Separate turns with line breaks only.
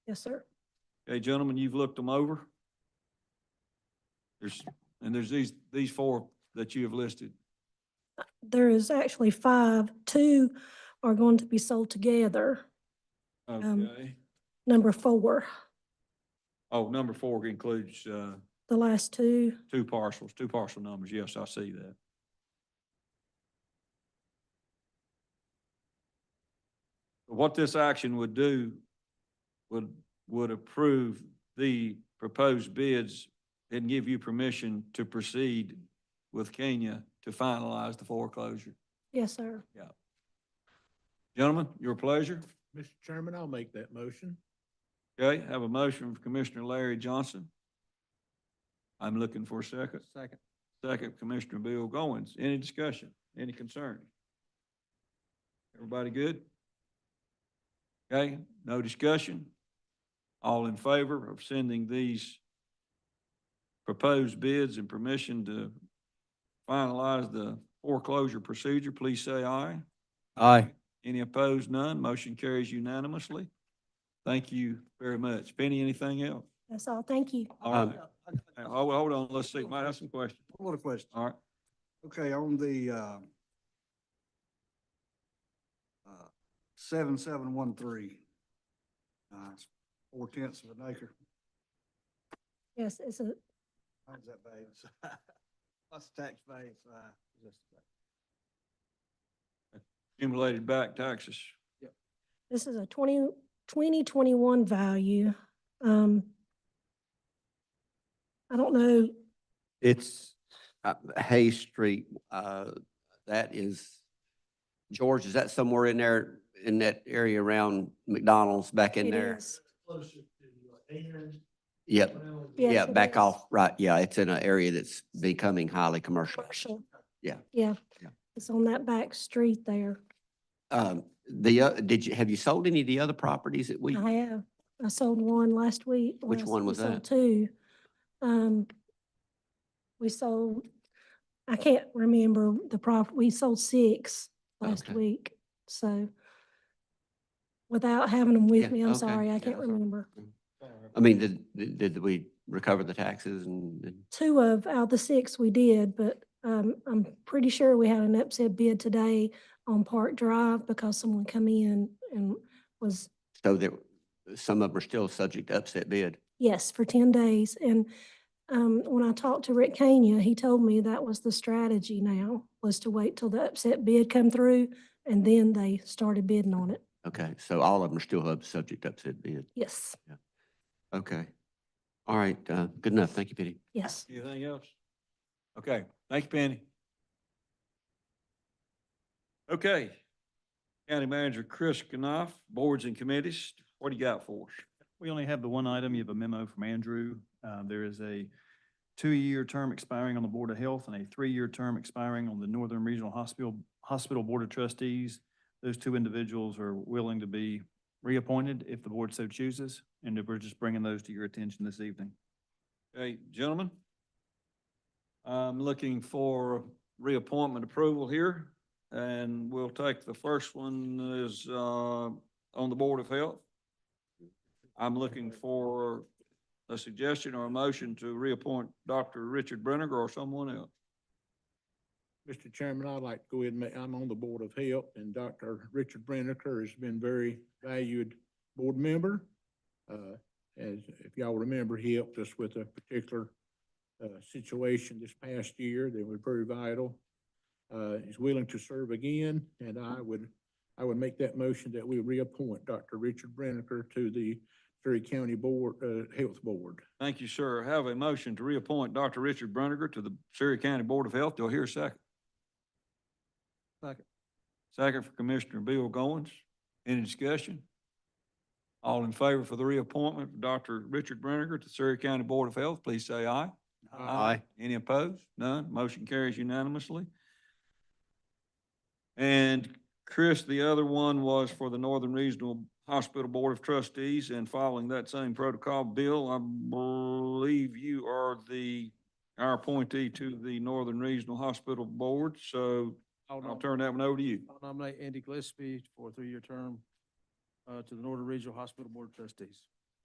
Yes, sir.
Okay, gentlemen, you've looked them over. There's, and there's these, these four that you have listed.
There is actually five. Two are going to be sold together. Um,
Okay.
Number four,
Oh, number four includes, uh,
the last two,
two parcels, two parcel numbers. Yes, I see that. What this action would do would, would approve the proposed bids and give you permission to proceed with Kenya to finalize the foreclosure.
yes, sir.
Gentlemen, your pleasure.
Mr. Chairman, I'll make that motion.
Okay, have a motion from Commissioner Larry Johnson. I'm looking for a second.
Second.
Second, Commissioner Bill Goins. Any discussion? Any concern? Everybody good? Okay, no discussion? All in favor of sending these proposed bids and permission to finalize the foreclosure procedure, please say aye.
Aye.
Any opposed? None. Motion carries unanimously. Thank you very much. Penny, anything else?
That's all. Thank you.
All right. Um,
Uh,
Hey, Hold, hold on, let's see. Might have some questions.
What a question.
All right.
Okay, on the, uh, uh, seven, seven, one, three, uh, it's four tenths of an acre.
Yes, it's a,
How's that value? What's the tax value? Uh, just-
Accumulated back taxes.
this is a twenty, twenty twenty-one value. Um, I don't know,
It's uh, Hay Street, uh, that is, George, is that somewhere in there, in that area around McDonald's back in
it
there?
is.
Yep,
Yes,
yeah,
it
back
is.
off, right, yeah, it's in an area that's becoming highly commercial.
Commercial.
Yeah.
Yeah.
Yeah.
It's on that back street there.
Um, the, uh, did you, have you sold any of the other properties that we,
I have. I sold one last week.
Which
last-
one
we
was
sold
that?
Two. Um, we sold, I can't remember the prop, we sold six last
Okay.
week, so. Without having them
Yeah,
with me, I'm
okay.
sorry,
Yeah,
I can't
that's all right.
remember.
I mean, did, did- did we recover the taxes and? and-
Two of, out of the six we did, but, um, I'm pretty sure we had an upset bid today on Park Drive because someone come in and was
So there, some of them are still subject to upset bid.
Yes, for ten days. And um, when I talked to Rick Kenya, he told me that was the strategy now, was to wait till the upset bid come through and then they started bidding on it.
Okay, so all of them are still up- subject to upset bid.
Yes,
Okay. All right, uh, good enough. Thank you, Penny.
yes.
Anything else? Okay, thank you, Penny. Okay. County Manager Chris Knopf, boards and committees, what do you got for us?
We only have the one item. You have a memo from Andrew. Uh, There is a two-year term expiring on the Board of Health and a three-year term expiring on the Northern Regional Hospital, Hospital Board of Trustees. Those two individuals are willing to be reappointed if the board so chooses, and we're just bringing those to your attention this evening.
Okay, gentlemen? I'm looking for reappointment approval here, and we'll take the first one is, uh, on the Board of Health. I'm looking for a suggestion or a motion to reappoint Dr. Richard Brenniger or someone else.
Mr. Chairman, I'd like to go ahead and make, I'm on the Board of Health and Dr. Richard Brenniker has been very valued board member. Uh, as if y'all remember, he helped us with a particular uh, situation this past year that was very vital. Uh, he's willing to serve again, and I would, I would make that motion that we reappoint Dr. Richard Brenniker to the Surrey County Board, uh, Health Board.
Thank you, sir. Have a motion to reappoint Dr. Richard Bruniger to the Surrey County Board of Health. Do I hear a second? Second. Second for Commissioner Bill Goins. Any discussion? All in favor for the reappointment of Dr. Richard Bruniger to Surrey County Board of Health, please say aye. Any opposed? None. Motion carries unanimously. And Chris, the other one was for the Northern Regional Hospital Board of Trustees and following that same protocol, Bill, I believe you are the, our appointee to the Northern Regional Hospital Board, so
I'll
I'll
nom-
turn that one over to you.
I'll nominate Andy Gillespie for a three-year term uh, to the Northern Regional Hospital Board of Trustees.